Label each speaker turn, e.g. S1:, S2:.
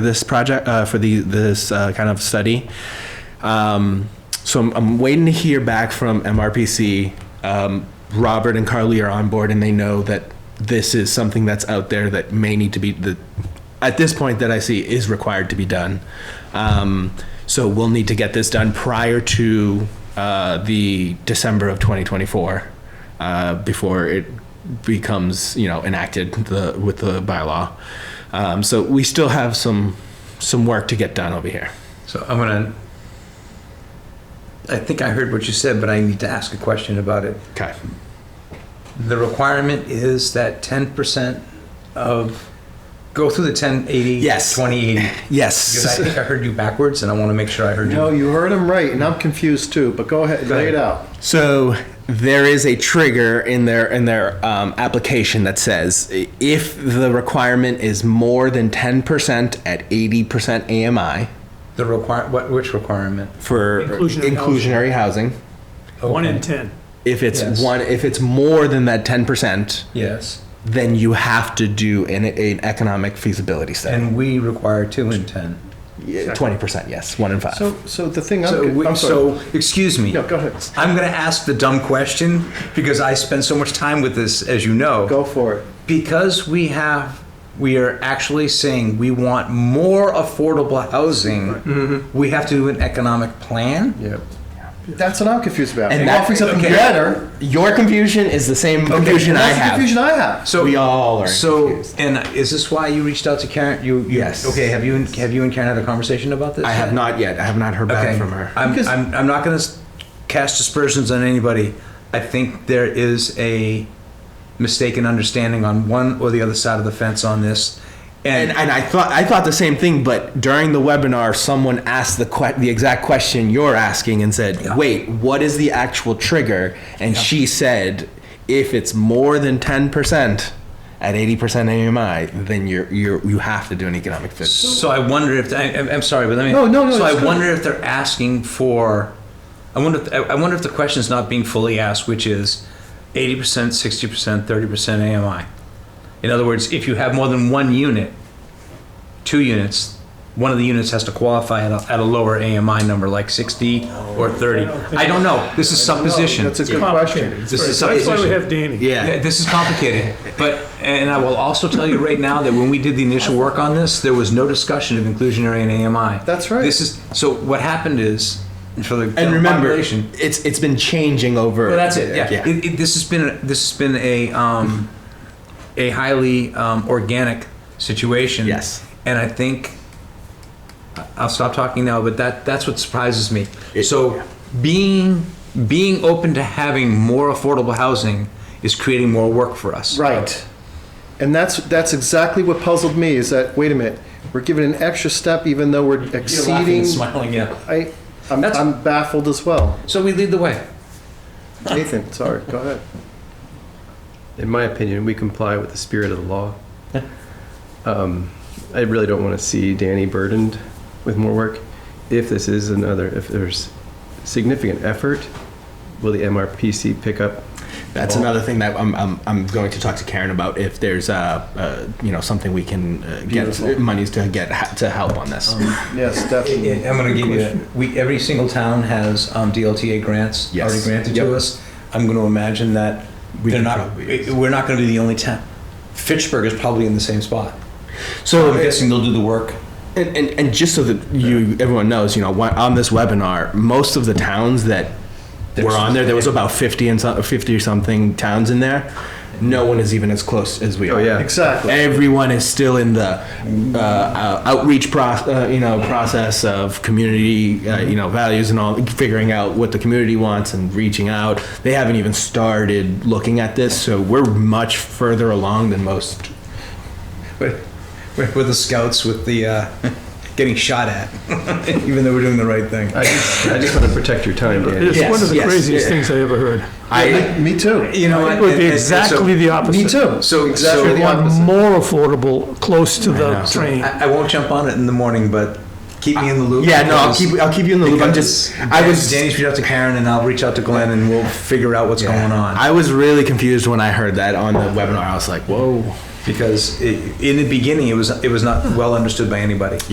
S1: for this project, uh, for the, this, uh, kind of study. Um, so I'm, I'm waiting to hear back from MRPC. Um, Robert and Carly are on board and they know that this is something that's out there that may need to be, that, at this point that I see is required to be done. Um, so we'll need to get this done prior to, uh, the December of 2024, uh, before it becomes, you know, enacted the, with the bylaw. Um, so we still have some, some work to get done over here.
S2: So I'm gonna, I think I heard what you said, but I need to ask a question about it.
S1: Okay.
S2: The requirement is that ten percent of, go through the ten eighty.
S1: Yes.
S2: Twenty eighty. Because I
S1: Yes.
S2: think I heard you backwards and I wanna make sure I heard
S3: No,
S2: you.
S3: you heard him right, and I'm confused too, but go ahead, lay it out.
S1: So there is a trigger in their in their um, application that says i- if the requirement is more than ten percent at eighty percent AMI
S2: The require, what, which requirement?
S1: for
S4: Inclusionary
S1: inclusionary housing,
S4: One in
S2: Okay.
S4: 10.
S1: if it's
S2: Yes.
S1: one if it's more than that ten percent,
S2: Yes,
S1: then you have to do an, an economic feasibility study.
S2: and we require two in ten.
S1: Twenty percent, yes, one in five.
S3: So, so the thing I'm,
S2: So,
S3: con-
S2: we-
S3: I'm sorry.
S2: so, excuse me.
S3: No, go ahead.
S2: I'm gonna ask the dumb question because I spend so much time with this, as you know.
S3: Go for it.
S2: because we have we are actually saying we want more affordable housing we have to do an economic plan
S3: Yep. That's what I'm confused about.
S1: And
S3: And
S1: that-
S3: offering something
S2: okay.
S3: better.
S1: Your confusion is the same confusion I
S3: That's the
S1: have.
S3: confusion I have.
S2: so
S1: We all are
S2: so
S1: confused.
S2: and is this why you reached out to karen you, you
S1: Yes.
S2: okay have you and have you and karen had a conversation about this
S1: I have not yet. I have not heard back
S2: okay
S1: from her.
S2: I'm,
S3: Because-
S2: I'm, I'm not going to cast dispersions on anybody i think there is a mistaken understanding on one or the other side of the fence on this
S1: And, and I thought I thought the same thing, but during the webinar, someone asked the que- the exact question you're asking and said,
S2: Yeah.
S1: "Wait, what is the actual trigger?" And she said, "If it's more than ten percent at eighty percent AMI, then you're you're you have to do an economic fit."
S2: So I wonder if I, I'm- I'm sorry, but let me.
S3: No, no, no,
S2: So I
S3: it's good.
S2: wonder if they're asking for. I wonder. If, I I wonder if the question is not being fully asked, which is, eighty percent, sixty percent, thirty percent AMI. In other words, if you have more than one unit, two units, one of the units has to qualify at a, at a lower AMI number, like sixty or thirty. I don't know. This is supposition.
S3: That's a good question.
S2: This is
S4: That's why we
S2: supposition.
S4: have Danny.
S2: Yeah, this is complicated, but, and I will also tell you right now that when we did the initial work on this, there was no discussion of inclusionary and AMI.
S3: That's right.
S2: This is, so what happened is, for the
S1: and
S2: general
S1: remember,
S2: population-
S1: it's it's been changing over.
S2: Well, that's it, yeah. It, it, this has been, a- this has been a, um, a highly, um, organic situation.
S1: Yes.
S2: And I think, I- I'll stop talking now, but that, that's what surprises me.
S1: It-
S2: So being, being open to having more affordable housing is creating more work for us.
S3: Right. And that's, that's exactly what puzzled me, is that, wait a minute, we're giving an extra step even though we're exceeding.
S2: smiling, yeah.
S3: I, I'm,
S2: That's-
S3: I'm baffled as well.
S2: So we lead the way.
S3: Nathan, sorry, go ahead.
S5: in my opinion, we comply with the spirit of the law. Um, I really don't want to see Danny burdened with more work. If this is another, if there's significant effort, will the MRPC pick up?
S1: That's another thing that I'm, I'm, I'm going to talk to Karen about if there's uh, uh, you know something we can uh, get
S3: Beautiful.
S1: monies to get ha- to help on this.
S2: Um,
S3: Yes, definitely.
S2: I'm going to give you, we, every single town has um, DLTA grants
S1: Yes.
S2: already granted to
S1: Yep.
S2: us. I'm going to imagine that
S1: We
S2: they're
S1: can
S2: not,
S1: probably use-
S2: we're not going to be the only town. Fitchburg is probably in the same spot.
S1: so
S2: I'm guessing they'll do the work.
S1: And, and, and just so that you everyone knows, you know, wh- on this webinar, most of the towns that were on there, there was about fifty and some, fifty or something towns in there. No one is even as close as we are.
S5: Oh, yeah.
S3: Exactly.
S1: Everyone is still in the uh, uh, outreach pro- uh, you know, process of community, uh, you know, values and all, figuring out what the community wants and reaching out. They haven't even started looking at this, so we're much further along than most.
S2: With, with with the scouts, with the, uh, getting shot at, even though we're doing the right thing.
S5: I just, I just want to protect your time, Danny.
S4: It's
S1: Yes,
S4: one of the
S1: yes,
S4: craziest
S1: yeah.
S4: things I ever heard.
S1: I,
S3: Me too.
S2: You know, what?
S4: It would
S2: And-
S4: be
S2: and- and so-
S4: exactly the opposite.
S3: Me too.
S2: So,
S3: Exactly
S2: so-
S3: the
S4: We want
S3: opposite.
S4: more affordable, close to the train.
S2: I, I won't jump on it in the morning, but keep me in the loop.
S1: yeah, no, I'll
S2: because-
S1: keep I'll keep you in the loop. I'm
S2: Because
S1: just I was
S2: Danny's reached out to Karen, and I'll reach out to Glenn, and we'll figure out what's going on.
S1: I was really confused when I heard that on the webinar. I was like, whoa.
S2: Because i in the beginning, it was it was not well understood by anybody.